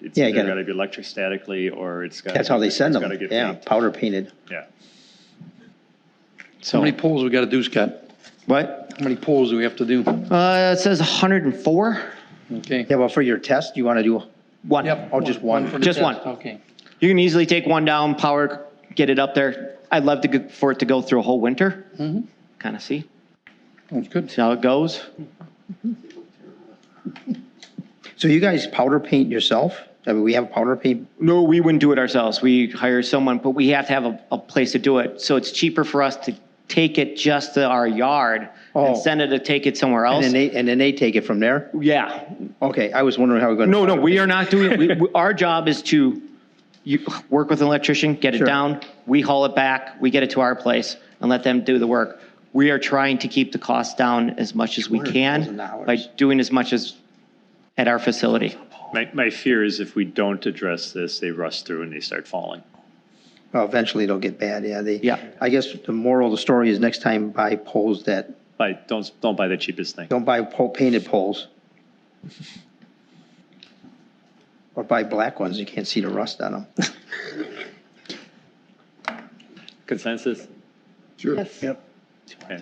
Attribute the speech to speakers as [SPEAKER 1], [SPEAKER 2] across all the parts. [SPEAKER 1] It's
[SPEAKER 2] Yeah, you
[SPEAKER 1] either
[SPEAKER 2] gotta-
[SPEAKER 1] gotta be electrostatically or it's got.
[SPEAKER 2] That's how they send
[SPEAKER 1] it's
[SPEAKER 2] them,
[SPEAKER 1] gotta get
[SPEAKER 2] yeah,
[SPEAKER 1] paint.
[SPEAKER 2] powder painted.
[SPEAKER 1] Yeah.
[SPEAKER 3] How
[SPEAKER 2] So,
[SPEAKER 3] many polls we got to do, Scott?
[SPEAKER 2] what?
[SPEAKER 3] How many polls do we have to do?
[SPEAKER 2] Uh, it says 104.
[SPEAKER 3] Okay.
[SPEAKER 2] Yeah, well, for your test, you want to do one?
[SPEAKER 3] Yep.
[SPEAKER 2] Or just
[SPEAKER 3] for
[SPEAKER 2] one?
[SPEAKER 3] the
[SPEAKER 4] Just
[SPEAKER 3] test.
[SPEAKER 4] one.
[SPEAKER 3] Okay.
[SPEAKER 4] You can easily take one down, power, get it up there. I'd love to, go- for it to go through a whole winter,
[SPEAKER 2] Mm-hmm.
[SPEAKER 3] Mhm.
[SPEAKER 4] kind of see,
[SPEAKER 3] That's good.
[SPEAKER 4] see how it goes.
[SPEAKER 2] So you guys powder paint yourself? I mean, we have powder paint,
[SPEAKER 4] No, we wouldn't do it ourselves. We hire someone, but we have to have a, a place to do it. So it's cheaper for us to take it just to our yard
[SPEAKER 2] Oh.
[SPEAKER 4] and send it to take it somewhere
[SPEAKER 2] and
[SPEAKER 4] else.
[SPEAKER 2] then they, and then they take it from there?
[SPEAKER 4] Yeah.
[SPEAKER 2] Okay, I was wondering how we're going to.
[SPEAKER 4] No, no, we are not doing, we- we- our job is to, you, work with an electrician, get it
[SPEAKER 2] Sure.
[SPEAKER 4] down, we haul it back, we get it to our place and let them do the work. We are trying to keep the cost down as much as we can
[SPEAKER 2] $200,000.
[SPEAKER 4] by doing as much as at our facility.
[SPEAKER 1] My, my fear is if we don't address this, they rust through and they start falling.
[SPEAKER 2] Well, Eventually it'll get bad, yeah, they.
[SPEAKER 4] Yeah.
[SPEAKER 2] I guess the moral of the story is next time buy poles that,
[SPEAKER 1] Buy, don't, don't buy the cheapest thing.
[SPEAKER 2] don't buy pole, painted poles. Or buy black ones, you can't see the rust on them.
[SPEAKER 1] Consensus?
[SPEAKER 5] Sure. Yep.
[SPEAKER 1] Okay.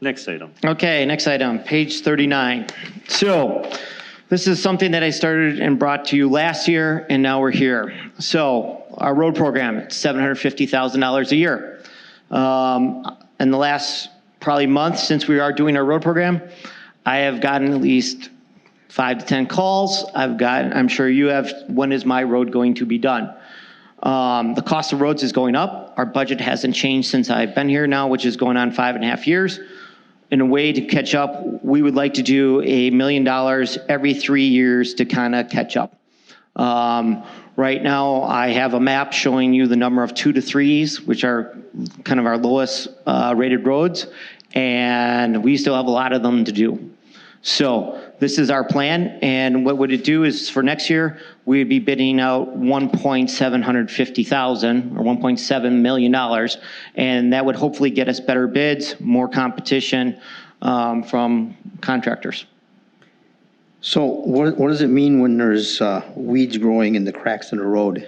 [SPEAKER 1] Next item.
[SPEAKER 4] Okay, next item, page 39. So this is something that I started and brought to you last year, and now we're here. So our road program, it's $750,000 a year. Um, In the last probably month since we are doing our road program, I have gotten at least five to 10 calls. I've gotten, I'm sure you have, when is my road going to be done? Um, the cost of roads is going up. Our budget hasn't changed since I've been here now, which is going on five and a half years. In a way to catch up, we would like to do a million dollars every three years to kind of catch up. Um, right now, I have a map showing you the number of two to threes, which are kind of our lowest uh, rated roads, and we still have a lot of them to do. So this is our plan, and what would it do is for next year, we'd be bidding out 1.750000 or 1.7 million dollars, and that would hopefully get us better bids, more competition um, from contractors.
[SPEAKER 2] So what, what does it mean when there's uh, weeds growing in the cracks in the road?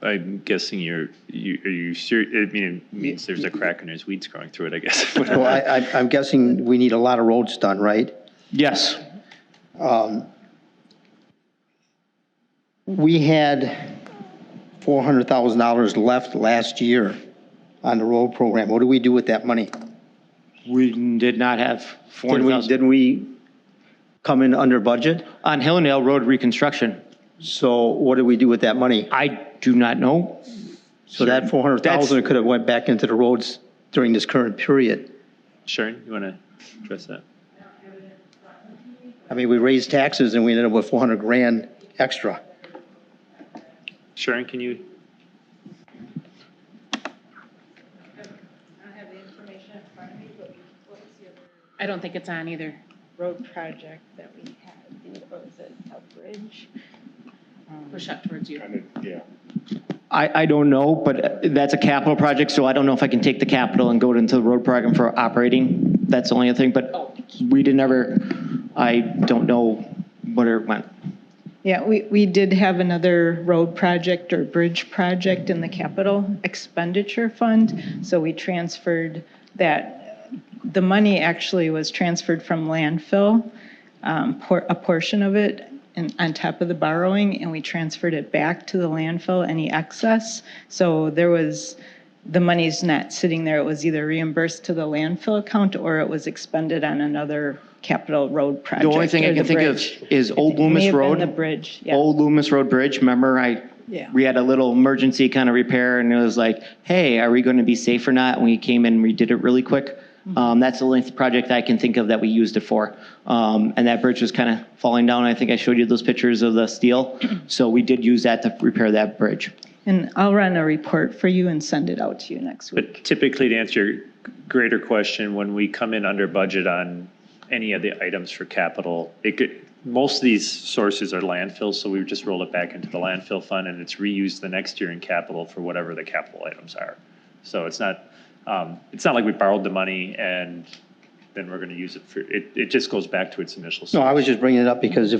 [SPEAKER 1] I'm guessing you're, you, are you serious? I mean, it means there's a crack and there's weeds growing through it, I guess.
[SPEAKER 2] So I, I- I'm guessing we need a lot of roads done, right?
[SPEAKER 4] Yes.
[SPEAKER 2] Um, We had four hundred thousand dollars left last year on the road program. What do we do with that money?
[SPEAKER 4] We did not have
[SPEAKER 2] Didn't we,
[SPEAKER 4] 400,000.
[SPEAKER 2] didn't we come in under budget?
[SPEAKER 4] On Hillendale Road reconstruction,
[SPEAKER 2] So what did we do with that money?
[SPEAKER 4] I do not know.
[SPEAKER 2] So that four hundred thousand could have went back into the roads during this current period.
[SPEAKER 1] Sharon, you want to address that?
[SPEAKER 2] I mean, we raised taxes and we ended up with four hundred grand extra.
[SPEAKER 1] Sharon, can you?
[SPEAKER 6] I don't have the information in front of me, but what was the other
[SPEAKER 7] I don't think it's on either.
[SPEAKER 6] road project that we had? What was it, Elk Bridge?
[SPEAKER 7] Push up towards you.
[SPEAKER 4] I, I don't know, but that's a capital project, so I don't know if I can take the capital and go into the road program for operating. That's the only thing, but we didn't ever, I don't know where it went.
[SPEAKER 6] Yeah, we, we did have another road project or bridge project in the capital expenditure fund, so we transferred that. The money actually was transferred from landfill, um, por- a portion of it, and on top of the borrowing, and we transferred it back to the landfill, any excess. So there was, the money's not sitting there, it was either reimbursed to the landfill account or it was expended on another capital road project.
[SPEAKER 4] The only thing I
[SPEAKER 6] or
[SPEAKER 4] can
[SPEAKER 6] the
[SPEAKER 4] think of
[SPEAKER 6] bridge.
[SPEAKER 4] is Old
[SPEAKER 6] May
[SPEAKER 4] Loomis
[SPEAKER 6] have been
[SPEAKER 4] Road.
[SPEAKER 6] The bridge, yeah.
[SPEAKER 4] Old Loomis Road Bridge, remember I,
[SPEAKER 6] Yeah.
[SPEAKER 4] we had a little emergency kind of repair and it was like, hey, are we going to be safe or not? And we came in and we did it really quick.
[SPEAKER 6] Mm-hmm.
[SPEAKER 4] Um, that's the only project I can think of that we used it for. Um, and that bridge was kind of falling down. I think I showed you those pictures of the steel. So we did use that to repair that bridge.
[SPEAKER 6] And I'll run a report for you and send it out to you next week.
[SPEAKER 1] But typically, to answer your greater question, when we come in under budget on any of the items for capital, it could, most of these sources are landfills, so we just roll it back into the landfill fund and it's reused the next year in capital for whatever the capital items are. So it's not, um, it's not like we borrowed the money and then we're gonna use it for, it, it just goes back to its initial.
[SPEAKER 2] No, I
[SPEAKER 1] source.
[SPEAKER 2] was just bringing it up because if